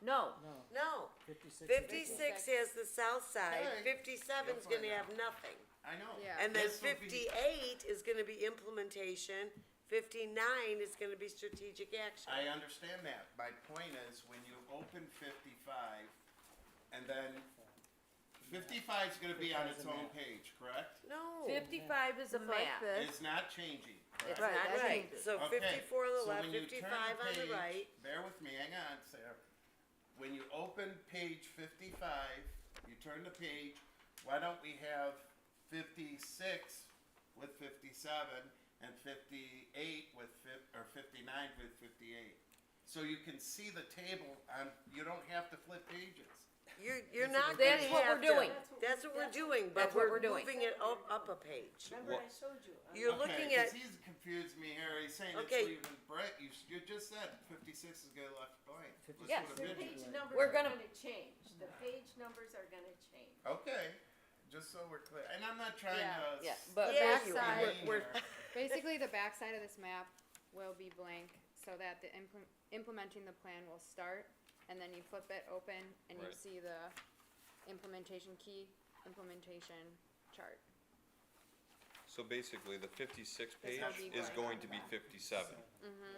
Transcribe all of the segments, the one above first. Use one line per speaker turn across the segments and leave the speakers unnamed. No,
No,
No,
fifty-six. is-
fifty-six has the south side,
Alright.
fifty-seven's
You'll
gonna
find
have nothing.
I know.
Yeah.
And then
This will be-
fifty-eight is gonna be implementation, fifty-nine is gonna be strategic action.
I understand that. My point is, when you open fifty-five, and then 55 is gonna be on its own page, correct?
No, Oh, it's
fifty-five is a
It's like
map.
this.
It's not changing,
It's
correct?
not
Right, that's
right,
changes.
so
Okay,
fifty-four on the
so
left,
when you turn
fifty-five on the
page-
right,
Bear with me, hang on, Sarah. When you open page fifty-five, you turn the page, why don't we have fifty-six with fifty-seven and fifty-eight with fif- or fifty-nine with fifty-eight? So you can see the table on, you don't have to flip pages.
you're, you're not gonna
That's what we're
have to-
doing.
That's what we're doing, but
That's what
we're
we're doing.
moving it up, up a page.
Remember I showed you. on
You're
Okay,
looking
'cause
at-
he's confused me here, he's saying it's
Okay.
leaving Brett, you, s- you just said fifty-six is gonna left blank. Let's put a
Yes.
The
midget
page
blank.
numbers
We're
are
gonna-
gonna change, the page numbers are gonna change.
Okay, just so we're clear, and I'm not trying
Yeah,
to.
Yeah,
s-
but
Yeah,
back
you-
be
side,
mean
we're,
here.
Basically, the backside of this map will be blank so that the implem- implementing the plan will start and then you flip it open and you
Right.
see the implementation key, implementation chart.
So basically, the fifty-six
This
page
will be
is
blank.
going to be fifty-seven.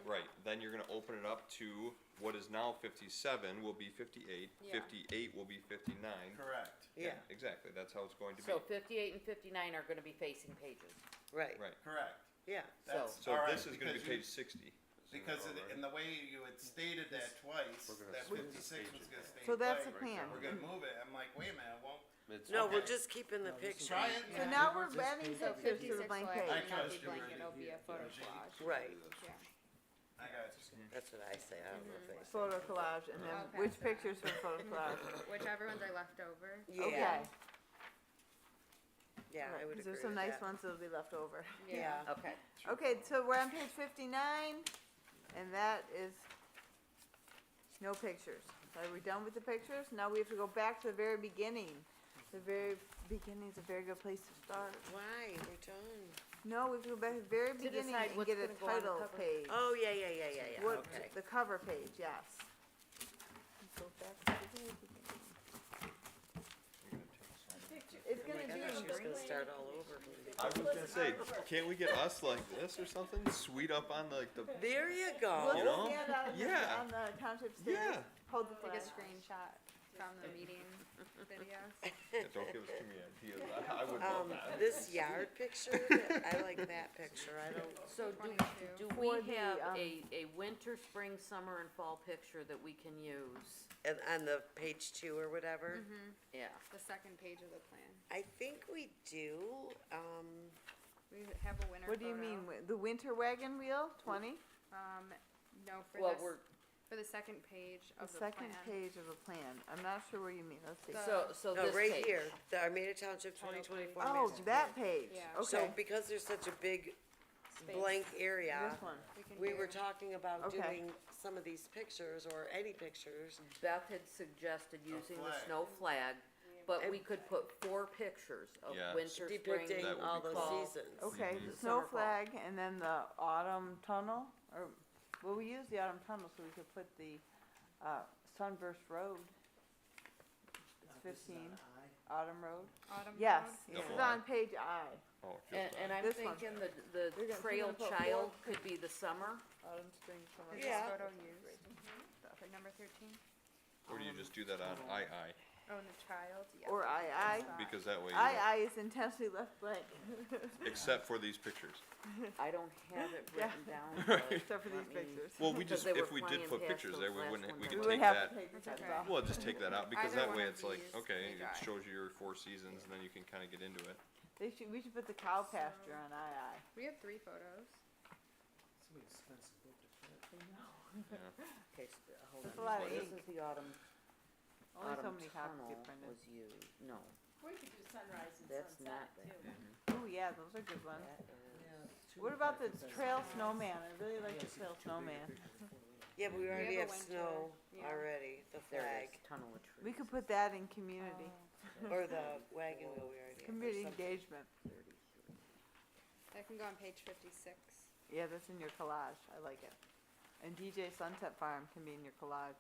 Right, then you're gonna open it up to what is now fifty-seven will be fifty-eight,
Yeah.
fifty-eight will be fifty-nine.
Correct,
Yeah,
Exactly, that's how it's going to be,
So fifty-eight and fifty-nine are gonna be facing pages.
right,
right.
correct.
yeah.
That's
So
all
this
right,
is gonna be
because you-
page sixty.
Because of the- in the way you had stated that twice,
gonna
that
switch the
fifty-six was gonna stay.
So that's
blank.
the plan.
We're gonna move it, I'm like, wait a minute, well,
No, we're
Okay.
just keeping the picture,
try it.
So now we're
Just
banning
So
the
fifty-six will
blank
actually
page.
I
not
trust
be
you,
blank,
Randy.
it'll be a photo collage.
right,
Yeah.
I got you.
that's what I say, I don't know
Mm-hmm.
if they.
Photo collage, and then
Okay.
which pictures were photo collage?
Whichever ones are left over.
Yeah,
Okay.
yeah, I would agree
Oh, There's some
with
nice
that.
ones that'll be left over.
Yeah,
Okay.
Okay, so we're on page fifty-nine, and that is no pictures. Are we done with the pictures? Now we have to go back to the very beginning. The very beginning's a very good place to start.
why, we're done.
No, we have to go back to the very beginning
decide
and
what's
get a
gonna go on the
title
cover.
page.
Oh, yeah, yeah, yeah, yeah, yeah,
What,
okay.
the cover page, yes. Go back to the very beginning. It's
Oh my
gonna
gosh, she
be
was gonna start all over.
I was gonna say, can't we get us like this or something, sweet up on like the,
There you
We'll
You
go.
know?
just stand out on the,
Yeah.
on the township stage,
Yeah.
hold the flag.
Take a screenshot from the meeting videos.
Yeah, don't give us too many ideas, I, I would love
Um,
that.
this yard picture, I like that picture, I don't,
So do,
22.
do
For
we
the,
have
um,
a, a winter, spring, summer, and fall picture that we can use?
and on the page two or
Mm-hmm.
whatever,
Yeah.
The second page of the plan.
I think we do, um,
We have a winner photo.
What do you mean, wi- the winter wagon wheel, twenty?
Um, no, for
Well,
this,
we're,
for the second page
The
of the plan.
second page of the plan, I'm not sure where you mean, let's see.
so, so
no,
this
oh, right
page.
here, the Armada Township twenty twenty-four.
Oh, that page,
Yeah.
okay,
So because there's such a big
Space.
blank area,
uh,
this one.
We can
we
do-
were talking about
Okay.
doing some of these pictures or any pictures.
Beth had suggested using the
flag.
snow flag, but we could put four pictures of
Yeah.
winter, spring,
depicting
That would
all
be
those
cool.
seasons.
Okay, the
Summer
snow
fall.
flag and then the autumn tunnel, or, well, we use the autumn tunnel so we could put the, uh, Sunburst Road. It's
Not this is
fifteen,
not I.
autumn road,
Autumn
yes,
road?
this is
Double I.
on page I,
Oh, just
And, and
that.
I'm
This one.
thinking the, the
You're gonna- you're
trail
gonna put
child
four-
could be the summer.
autumn, spring, summer.
Is
fall.
this
Yeah.
photo used? For number thirteen?
Or do you just do that on I I,
Oh, and the child, yeah.
Or I, I,
because that way, you
I,
don't-
I is intentionally left blank,
except for these pictures.
I don't have it
Yeah.
written down, but
except for
let
these
me-
pictures.
Well, we
Because
just,
they were
if we
flying
did put
past
pictures
those
there, we
last
wouldn't,
one
we
that
could
We would
take
have
that,
to take the
That's
tabs
okay.
off.
well, just take that out, because
Either
that
one
way
of
it's like,
these
okay,
we
it
got.
shows you your four seasons, and then you can kinda get into it.
They should, we should put the cow pasture on I I.
We have three photos.
It's gonna be expensive book to print.
Okay, s- hold
That's
on.
a lot of
This
ink.
is the autumn,
Only so
autumn
many copies
tunnel
get printed.
was used, no,
We could do sunrise and
That's
sunset
not
too.
Oh, yeah, those are good ones.
that is,
Yeah, it's too
What about the
bad because-
trail snowman? I really
Yeah,
like
it's
the trail
too big a
snowman.
picture for four little.
Yeah, but we already have
have a winter,
snow
yeah.
already, the
there
flag,
it is, tunnel of trees.
We could put that in community,
or the wagon wheel we already have. or
community
something.
engagement.
That can go on page fifty-six.
Yeah, that's in your collage. I like it. And DJ Sunset Farm can be in your collage.